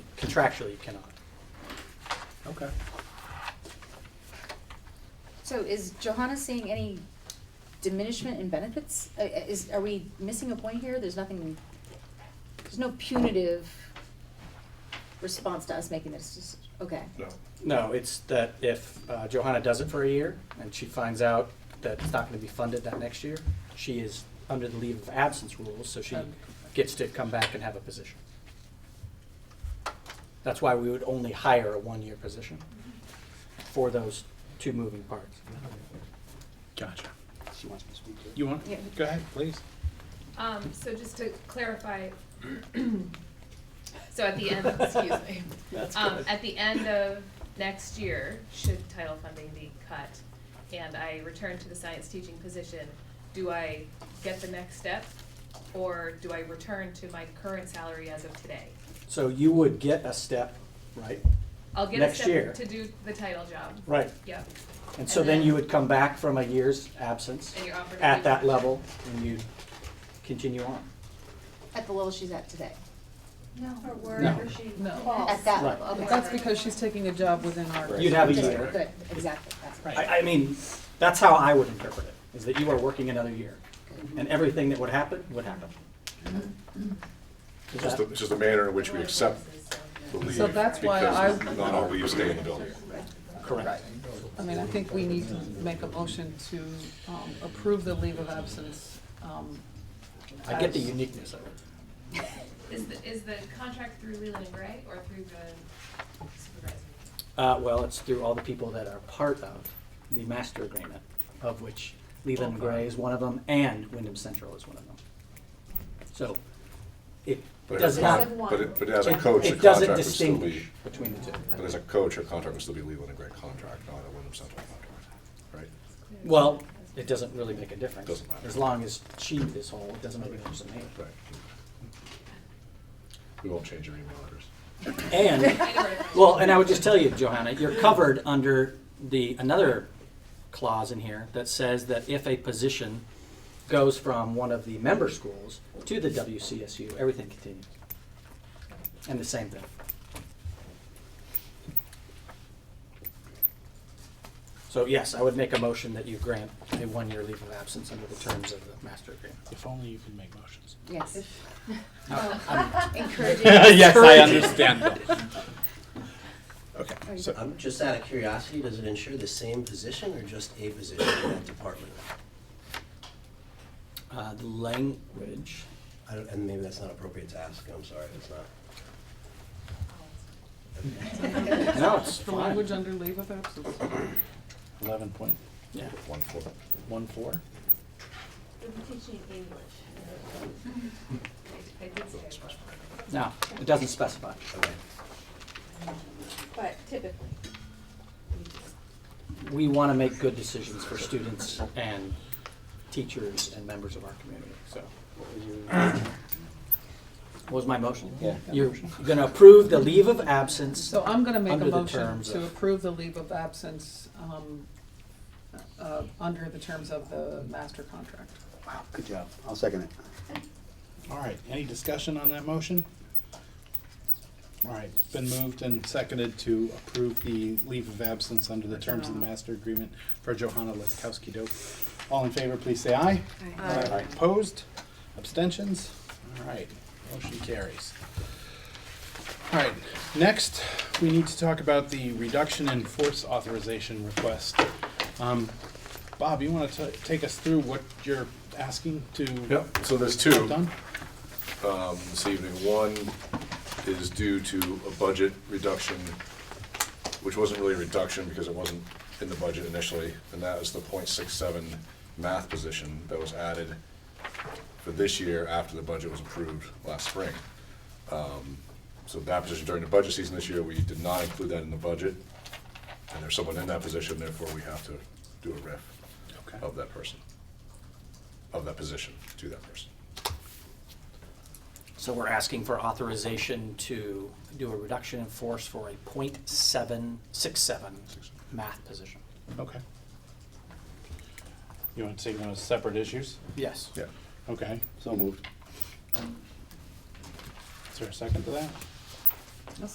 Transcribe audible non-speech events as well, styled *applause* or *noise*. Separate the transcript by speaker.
Speaker 1: Contractually, you cannot.
Speaker 2: Okay.
Speaker 3: So is Johanna seeing any diminishment in benefits? Uh, uh, Is, are we missing a point here? There's nothing, there's no punitive response to us making this, just, okay.
Speaker 4: No.
Speaker 1: No, it's that if uh, Johanna does it for a year and she finds out that it's not going to be funded that next year, she is under the leave of absence rules, so she
Speaker 3: Okay.
Speaker 1: gets to come back and have a position. That's why we would only hire a one-year position for those two moving parts.
Speaker 2: Gotcha.
Speaker 1: She wants me to speak to it.
Speaker 2: You want?
Speaker 3: Yeah.
Speaker 2: Go ahead, please.
Speaker 5: Um, so just to clarify, *clears throat* so at the end, excuse
Speaker 1: *laughs*
Speaker 5: me. Um, at the end of next year, should title funding be cut and I return to the science teaching position, do I get the next step? Or do I return to my current salary as of today?
Speaker 1: So you would get a step, right?
Speaker 5: I'll get a
Speaker 1: Next year.
Speaker 5: step to do the title job.
Speaker 1: Right.
Speaker 5: Yep,
Speaker 1: And so then you would come back from a year's absence
Speaker 5: and you're offered a
Speaker 1: at
Speaker 5: new
Speaker 1: that
Speaker 5: contract.
Speaker 1: level and you continue on.
Speaker 3: At the level she's at today,
Speaker 6: Or
Speaker 1: No.
Speaker 6: wherever she
Speaker 7: No.
Speaker 6: falls.
Speaker 3: at that
Speaker 1: Right.
Speaker 3: level, okay.
Speaker 7: That's because she's taking a job within our.
Speaker 1: You'd have a
Speaker 3: Good,
Speaker 1: year.
Speaker 3: Good, exactly, that's right.
Speaker 1: I, I mean, that's how I would interpret it, is that you are working another year, and everything that would happen, would happen. Is
Speaker 4: It's just,
Speaker 1: that-
Speaker 4: the- it's just the manner in which we accept the leave.
Speaker 7: So that's why
Speaker 4: because
Speaker 7: I-
Speaker 4: Not all leaves stay in the building.
Speaker 1: Correct.
Speaker 7: I mean, I think we need to make a motion to um, approve the leave of absence. um,
Speaker 1: I get the
Speaker 7: as-
Speaker 1: uniqueness of it.
Speaker 5: Is the, is the contract through Leland and Gray or through the
Speaker 1: *laughs*
Speaker 5: supervisor?
Speaker 1: Uh, well, it's through all the people that are part of the master agreement, of which Leland and Gray is one of them, and Wyndham Central is one of them. So, it
Speaker 4: But
Speaker 1: does
Speaker 4: as a
Speaker 1: not.
Speaker 4: con-
Speaker 6: not-
Speaker 4: But, it- but as a
Speaker 1: it-
Speaker 4: coach, the
Speaker 1: It doesn't
Speaker 4: contract would still
Speaker 1: distinguish
Speaker 4: be,
Speaker 1: between the two.
Speaker 4: but as a coach, her contract would still be Leland and Gregg contract, not a Wyndham Central contract, right?
Speaker 1: Well, it doesn't really make a difference.
Speaker 4: Doesn't matter.
Speaker 1: As long as she is whole, it doesn't make a difference to me.
Speaker 4: Right. We won't change your email address.
Speaker 1: And
Speaker 5: I know where to find
Speaker 1: Well, and I would just tell you, Johanna, you're covered under the, another clause in here that says that if a position goes from one of the member schools to the WCSU, everything continues. And the same thing. So yes, I would make a motion that you grant a one-year leave of absence under the terms of the master agreement.
Speaker 2: If only you can make motions.
Speaker 3: Yes, encouraging.
Speaker 2: *laughs* Yes, I understand. Okay, so,
Speaker 8: I'm just out of curiosity, does it ensure the same position or just a position in that department?
Speaker 1: Uh, the language,
Speaker 8: I don't, and maybe that's not appropriate to ask, I'm sorry, it's not.
Speaker 1: no, it's
Speaker 7: The
Speaker 1: fine.
Speaker 7: language under leave of absence.
Speaker 2: eleven point
Speaker 1: Yeah.
Speaker 4: One four.
Speaker 2: one four?
Speaker 6: We're teaching English.
Speaker 5: I did say that.
Speaker 1: No, it doesn't specify.
Speaker 8: Okay.
Speaker 6: But typically,
Speaker 1: we want to make good decisions for students and teachers and members of our community, so. What was my motion? Yeah. You're going to approve the leave of absence.
Speaker 7: So I'm gonna make
Speaker 1: Under
Speaker 7: a
Speaker 1: the
Speaker 7: motion
Speaker 1: terms
Speaker 7: to
Speaker 1: of-
Speaker 7: approve the leave of absence, um, uh, under the terms of the master contract.
Speaker 9: Good job. I'll second it.
Speaker 2: All right, any discussion on that motion? All right, it's been moved and seconded to approve the leave of absence under the terms of the master agreement for Johanna Lefkowski Dope. All in favor, please say aye. Aye. Opposed? Abstentions? All right, motion carries. All right, next, we need to talk about the reduction in force authorization request. Um, Bob, you want to take us through what you're asking to?
Speaker 4: Yep, so there's
Speaker 2: have
Speaker 4: two.
Speaker 2: Done?
Speaker 4: this evening. One is due to a budget reduction, which wasn't really a reduction because it wasn't in the budget initially, and that is the .67 math position that was added for this year after the budget was approved last spring. Um, So that position during the budget season this year, we did not include that in the budget, and there's someone in that position, therefore we have to do a ref
Speaker 2: Okay.
Speaker 4: of that person, of that position to that person.
Speaker 1: So we're asking for authorization to do a reduction in force for a .767 math position.
Speaker 2: Okay. You want to take them as separate issues?
Speaker 1: Yes.
Speaker 4: Yeah.
Speaker 2: Okay.
Speaker 9: So moved.
Speaker 2: Is there a second to that?